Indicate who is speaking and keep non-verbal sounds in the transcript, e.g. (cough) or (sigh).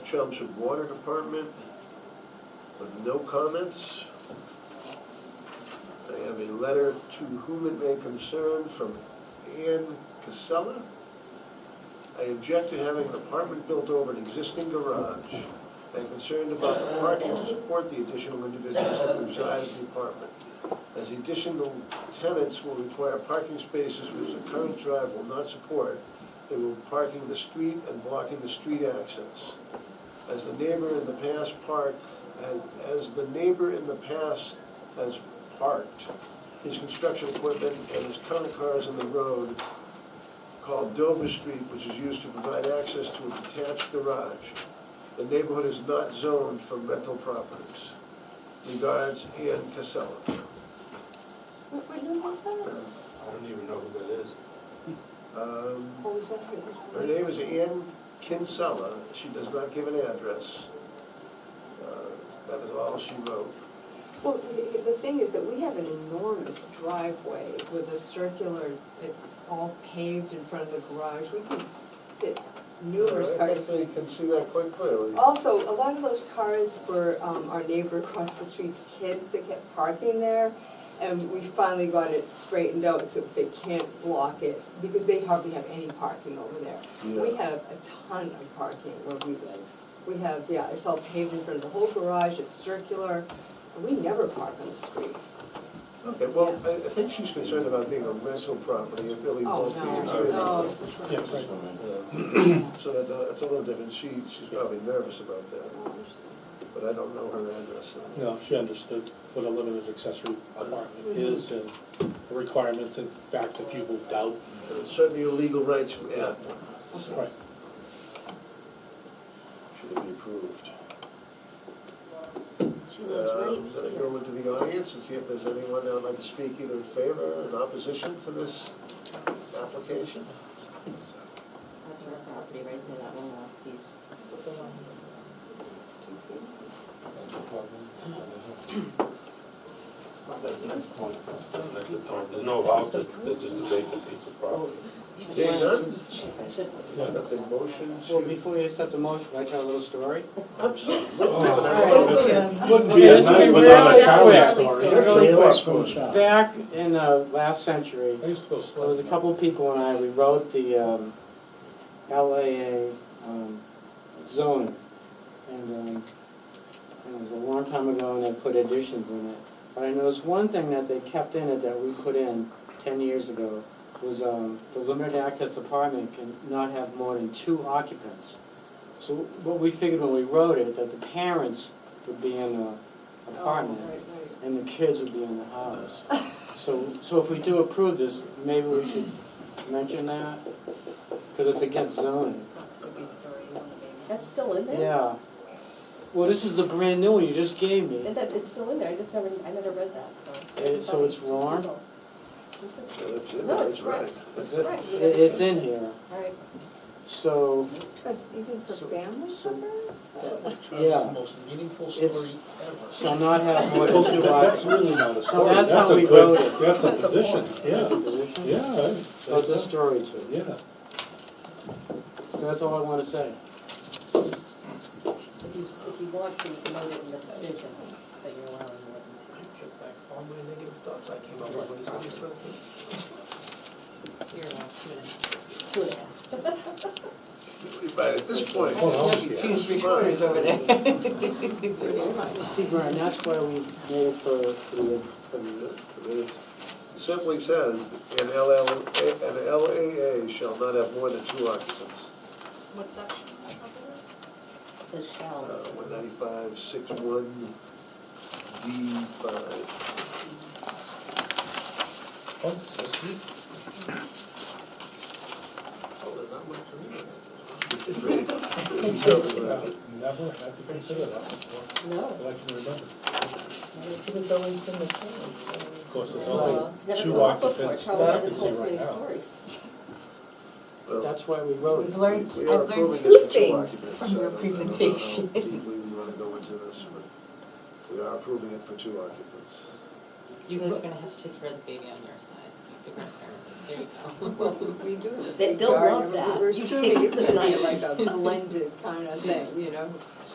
Speaker 1: Chelmsford Water Department with no comments. I have a letter to whom it may concern from Ann Casella. I object to having an apartment built over an existing garage. I'm concerned about the parking to support the additional individuals that reside in the apartment. As additional tenants will require parking spaces which the current drive will not support, they will be parking in the street and blocking the street access. As the neighbor in the past park, as the neighbor in the past has parked his construction equipment and his current cars on the road, called Dover Street, which is used to provide access to a detached garage. The neighborhood is not zoned for rental properties. Regards, Ann Casella.
Speaker 2: What, what number is that?
Speaker 3: I don't even know who that is.
Speaker 1: Um,
Speaker 2: Oh, is that
Speaker 1: Her
Speaker 2: her?
Speaker 1: name is Ann Kinsella, she does not give an address. Uh, That is all she wrote.
Speaker 2: Well, the, the thing is that we have an enormous driveway with a circular, it's all paved in front of the garage. We can fit numerous
Speaker 1: I
Speaker 2: cars.
Speaker 1: think they can see that quite clearly.
Speaker 2: Also, a lot of those cars were, um, our neighbor across the street's kids that kept parking there. And we finally got it straightened out, so they can't block it, because they hardly have any parking over there. We
Speaker 1: Yeah.
Speaker 2: have a ton of parking where we live. We have, yeah, it's all paved in front of the whole garage, it's circular, and we never park on the streets.
Speaker 1: Okay, well, I, I think she's concerned about being a rental property, it really won't
Speaker 2: Oh,
Speaker 1: be. It's
Speaker 2: no, Oh,
Speaker 1: really-
Speaker 2: no.
Speaker 4: Yeah, right.
Speaker 1: Yeah. (clears throat) So that's a, that's a little different, she, she's probably nervous about
Speaker 2: Oh,
Speaker 1: that, but I don't know her address.
Speaker 4: No, she understood what a limited accessory apartment is and the requirements, in fact, if you moved out.
Speaker 1: And it's certainly your legal right to add one, so
Speaker 4: Right.
Speaker 1: should it be approved?
Speaker 5: She
Speaker 1: Um, Then
Speaker 5: lives
Speaker 1: I
Speaker 5: right
Speaker 1: go
Speaker 5: here.
Speaker 1: into the audience and see if there's anyone that would like to speak either in favor or in opposition to this application.
Speaker 5: That's her property right there, that one last piece.
Speaker 3: That's next to Tom. There's no house, it's it's just a vacant piece of property.
Speaker 1: Seeing none, accept a
Speaker 5: She's-
Speaker 1: motion
Speaker 6: Well,
Speaker 1: to.
Speaker 6: before you accept the motion, can I tell a little story?
Speaker 4: Oh,
Speaker 1: Absolutely.
Speaker 6: Wouldn't
Speaker 4: be a night without
Speaker 5: a Charlie story.
Speaker 1: That's a question.
Speaker 6: Back in the last century,
Speaker 4: I used to go slow.
Speaker 6: there was a couple of people and I, we wrote the um, LAA um, zoning. And um, and it was a long time ago and they put additions in it. But I noticed one thing that they kept in it that we put in ten years ago was um, the limited access apartment can not have more than two occupants. So what we figured when we wrote it, that the parents would be in the
Speaker 2: Oh,
Speaker 6: apartment and the kids would be in the house. So, so if we do approve this, maybe we should mention that, because it's against zoning.
Speaker 5: That's still in there?
Speaker 6: Yeah. Well, this is the brand new one you just gave me.
Speaker 5: And that, it's still in there, I just never, I never read that, so.
Speaker 6: Eh, so it's wrong?
Speaker 5: No,
Speaker 1: It's in there,
Speaker 5: No,
Speaker 1: it's
Speaker 5: it's
Speaker 1: right.
Speaker 5: right.
Speaker 1: That's
Speaker 5: It's
Speaker 1: it.
Speaker 5: right.
Speaker 6: It- It's in here,
Speaker 5: All right.
Speaker 6: so,
Speaker 2: Even for
Speaker 6: So-
Speaker 2: family
Speaker 6: so-
Speaker 2: members?
Speaker 4: Charlie's most meaningful
Speaker 6: It's-
Speaker 4: story
Speaker 6: shall not have more than
Speaker 4: (laughs)
Speaker 6: two
Speaker 4: That's
Speaker 6: occupants.
Speaker 4: really not a
Speaker 6: So
Speaker 4: story, that's
Speaker 6: that's
Speaker 4: a
Speaker 6: how we
Speaker 4: good,
Speaker 6: wrote it.
Speaker 4: that's a position, yeah,
Speaker 6: That's a position.
Speaker 4: yeah. I-
Speaker 6: So it's a story to it.
Speaker 4: Yeah.
Speaker 6: So that's all I want to say.
Speaker 5: If you, if you want to, you can note it in the decision that you're allowing more than
Speaker 1: All my negative thoughts I came
Speaker 5: up with when he said this two. You're allowed two and a half. Two and a half.
Speaker 1: But at this point,
Speaker 4: Hold on.
Speaker 1: it's fine.
Speaker 2: over there.
Speaker 5: (laughs)
Speaker 6: See, Brian, that's why we made it for, for the, for the,
Speaker 1: It Simply says, an LL, an LAA shall not have more than two occupants.
Speaker 7: What's that?
Speaker 5: It says shall,
Speaker 1: Uh,
Speaker 5: doesn't it?
Speaker 1: one ninety-five, six one, D five.
Speaker 4: Oh, that's neat.
Speaker 1: Oh, there's not much to (laughs)
Speaker 4: Never had to consider that before,
Speaker 5: No,
Speaker 4: that I can remember.
Speaker 5: it's always been the same.
Speaker 4: Of course, there's
Speaker 5: Well,
Speaker 4: only
Speaker 5: it's never
Speaker 4: two
Speaker 5: come up before,
Speaker 4: occupants
Speaker 5: Charlie
Speaker 4: that I
Speaker 5: hasn't
Speaker 4: can see
Speaker 5: told many
Speaker 4: right now.
Speaker 5: stories.
Speaker 6: that's why we wrote it.
Speaker 1: learned, I've learned
Speaker 2: two things
Speaker 1: from your (laughs) presentation. Deeply we wanna go into this, but we are approving it for two occupants.
Speaker 5: You guys are gonna have to take care of the baby on your side, the grandparents, there you go. (laughs)
Speaker 2: Well, we do. have a
Speaker 7: They-
Speaker 2: big
Speaker 7: they'll (laughs)
Speaker 2: garden.
Speaker 7: love that.
Speaker 2: We're assuming it's gonna be like
Speaker 7: Nice.
Speaker 2: a
Speaker 7: (laughs)
Speaker 2: blended kind of thing, you know?